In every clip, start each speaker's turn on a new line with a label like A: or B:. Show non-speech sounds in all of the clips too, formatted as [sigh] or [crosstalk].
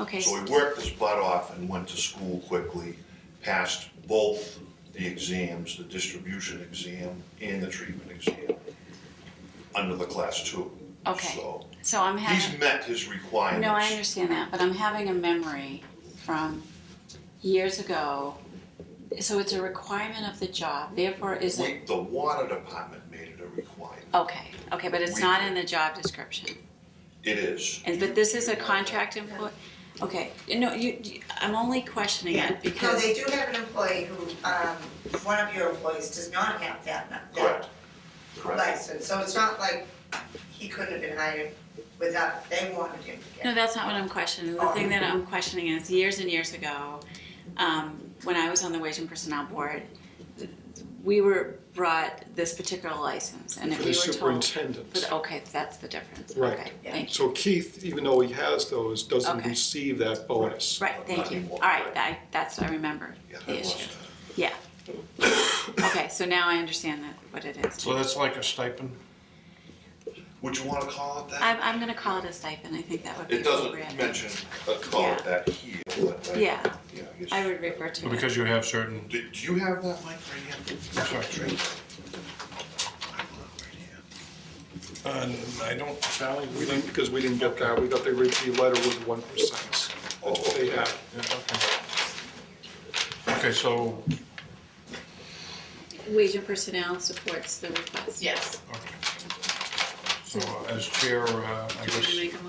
A: Okay.
B: So he worked his butt off and went to school quickly, passed both the exams, the distribution exam and the treatment exam, under the class two.
A: Okay.
B: So
A: So I'm
B: he's
A: having,
B: met his requirements.
A: no, I understand that, but I'm having a memory from years ago. So it's a requirement of the job, therefore is it,
B: We- The water department made it a requirement.
A: okay, okay, but it's
B: We-
A: not in the job description.
B: It is.
A: And, but this is a contract employee, okay, no, you, you- I'm only questioning
C: Yeah,
A: it
C: so
A: because,
C: they do have an employee who, um, one of your employees does not have that,
B: Correct.
C: that
B: Correct.
C: license, so it's not like he couldn't have been hired without, they wanted him to
A: no,
C: get.
A: that's not what I'm questioning. The thing that I'm questioning is years and years ago, um, when I was on the wage and personnel board, we were brought this particular license and if
D: For
A: we
D: the
A: were told.
D: superintendent.
A: But, okay, that's the difference.
D: Right.
A: Okay, thank you.
D: So Keith, even though he has those, doesn't
A: Okay.
D: receive that bonus.
A: Right, thank you. All
B: Right.
A: right, I, that's, I remember
B: Yeah, that
A: the
B: was
A: issue. Yeah. Okay, so now I understand that, what it is.
E: So that's like a stipend?
B: Would you wanna call it that?
A: I'm, I'm gonna call it a stipend. I think that would be
B: It doesn't
A: appropriate.
B: mention, uh, call it that here, but I.
A: Yeah.
B: Yeah, I guess.
A: I would refer to it.
E: Because you have certain,
B: Do, do you have that mic right here?
E: Sorry.
B: Right here.
E: uh, I don't, Sally, we
D: We
E: don't.
D: didn't, because we didn't get that, we got the, re- the letter with one percent.
B: Oh,
D: They
B: okay.
D: have,
E: yeah, okay. Okay, so,
A: Wage and personnel supports the request.
F: Yes.
E: okay. So as chair, uh, I
A: Do you wanna
E: guess,
A: make a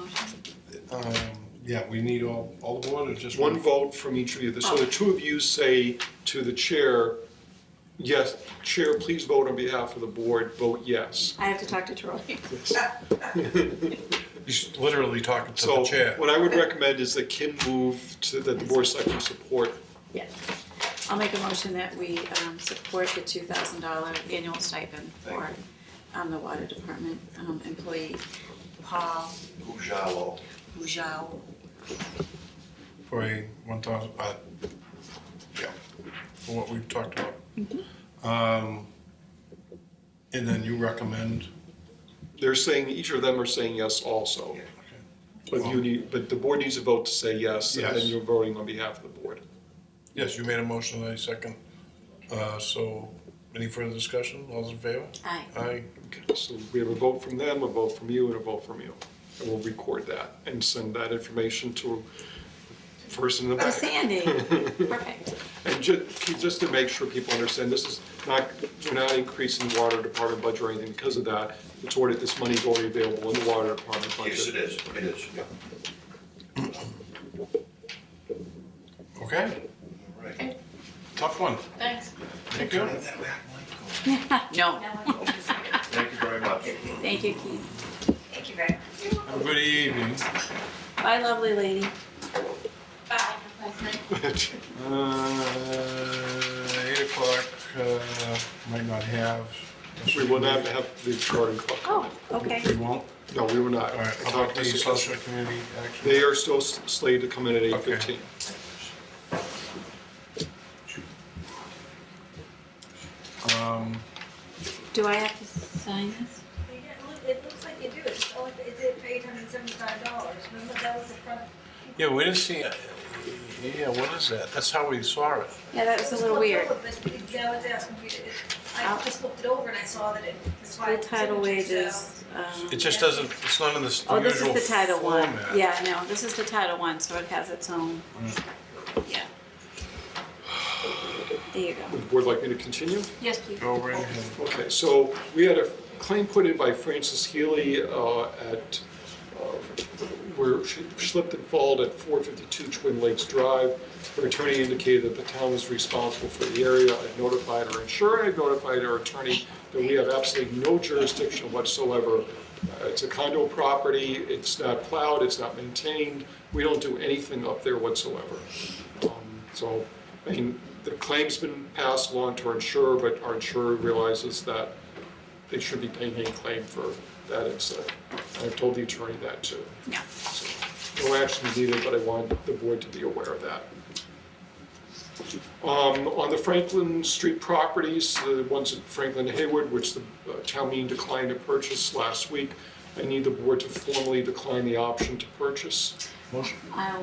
A: motion?
E: um, yeah, we need all, all the board or just
D: one
E: one?
D: vote from each of you, so
A: Oh.
D: the two of you say to the chair, yes, chair, please vote on behalf of the board, vote yes.
A: I have to talk to Troy. Uh,
E: He's literally talking to the
D: So
E: chair.
D: what I would recommend is that Kim move to, that the board selectmen support
A: Yes. I'll make a motion that we, um, support the two thousand dollar annual stipend for,
B: Thank
A: um, the water department, um, employee Paul
B: Ujalo.
A: Bujau.
E: for a one thousand, uh, yeah, for what we've talked about. Um, and then you recommend,
D: They're saying, each of them are saying yes also. But you need, but the board needs a vote to say yes, and then
E: Yes.
D: you're voting on behalf of the board.
E: yes, you made a motion, I second. Uh, so, any further discussion? All's in favor?
A: Aye.
E: Aye.
D: Okay, so we have a vote from them, a vote from you, and a vote from you. And we'll record that and send that information to the person in
A: To
D: the back.
A: Sandy. Perfect.
D: And ju- Keith, just to make sure people understand, this is not, we're not increasing the water department budget or anything because of that. It's already, this money's already available in the water department budget.
B: Yes, it is, it is, yeah.
E: Okay,
B: All right.
E: tough one.
F: Thanks.
E: Thank you.
B: Have that back mic going.
A: No,
B: Thank you very much.
A: thank you, Keith.
C: Thank you very much.
E: Have a good evening.
A: Bye, lovely lady.
F: Bye.
E: Uh, eight o'clock, uh, might not have.
D: [laughs] We will not have the recording clock on.
A: Oh, okay.
E: We won't?
D: No, we will not.
E: All right,
D: I
E: how
D: talked
E: about
D: to
E: the
D: Mr.
E: social community action?
D: They are still s- slated to come in at eight
E: Okay.
D: fifteen.
E: Um,
A: Do I have to sign this?
G: It looks like you do, it's only, it's for eight hundred and seventy-five dollars, remember that was the front.
E: Yeah, we didn't see, it. yeah, what is that? That's how we saw it.
A: Yeah, that was a little weird.
G: Yeah, I was asking if you, it-
A: I'll-
G: I just looked it over and I saw that it, that's why.
A: The
G: it's
A: tidal
G: signature,
A: wave
G: so-
A: is, um,
E: It just doesn't, it's not in the s-
A: oh, this
E: usual
A: is the title one.
E: format.
A: Yeah, no, this is the title one, so it has its own, yeah. There you go.
D: Would the board like me to continue?
A: Yes, please.
E: Go right ahead.
D: Okay, so we had a claim put in by Frances Healy uh, at, uh, where she slipped and falled at 452 Twin Lakes Drive. Her attorney indicated that the town was responsible for the area. I notified her insurer, I notified her attorney that we have absolutely no jurisdiction whatsoever. Uh, It's a condo property, it's not plowed, it's not maintained, we don't do anything up there whatsoever. Um, So, I mean, the claim's been passed along to our insurer, but our insurer realizes that they should be paying a claim for that incident. I've told the attorney that too.
A: Yeah.
D: So, No action is needed, but I want the board to be aware of that. Um, On the Franklin Street properties, the ones at Franklin and Hayward, which the uh, town meeting declined to purchase last week, I need the board to formally decline the option to purchase.
E: Motion.
A: I'll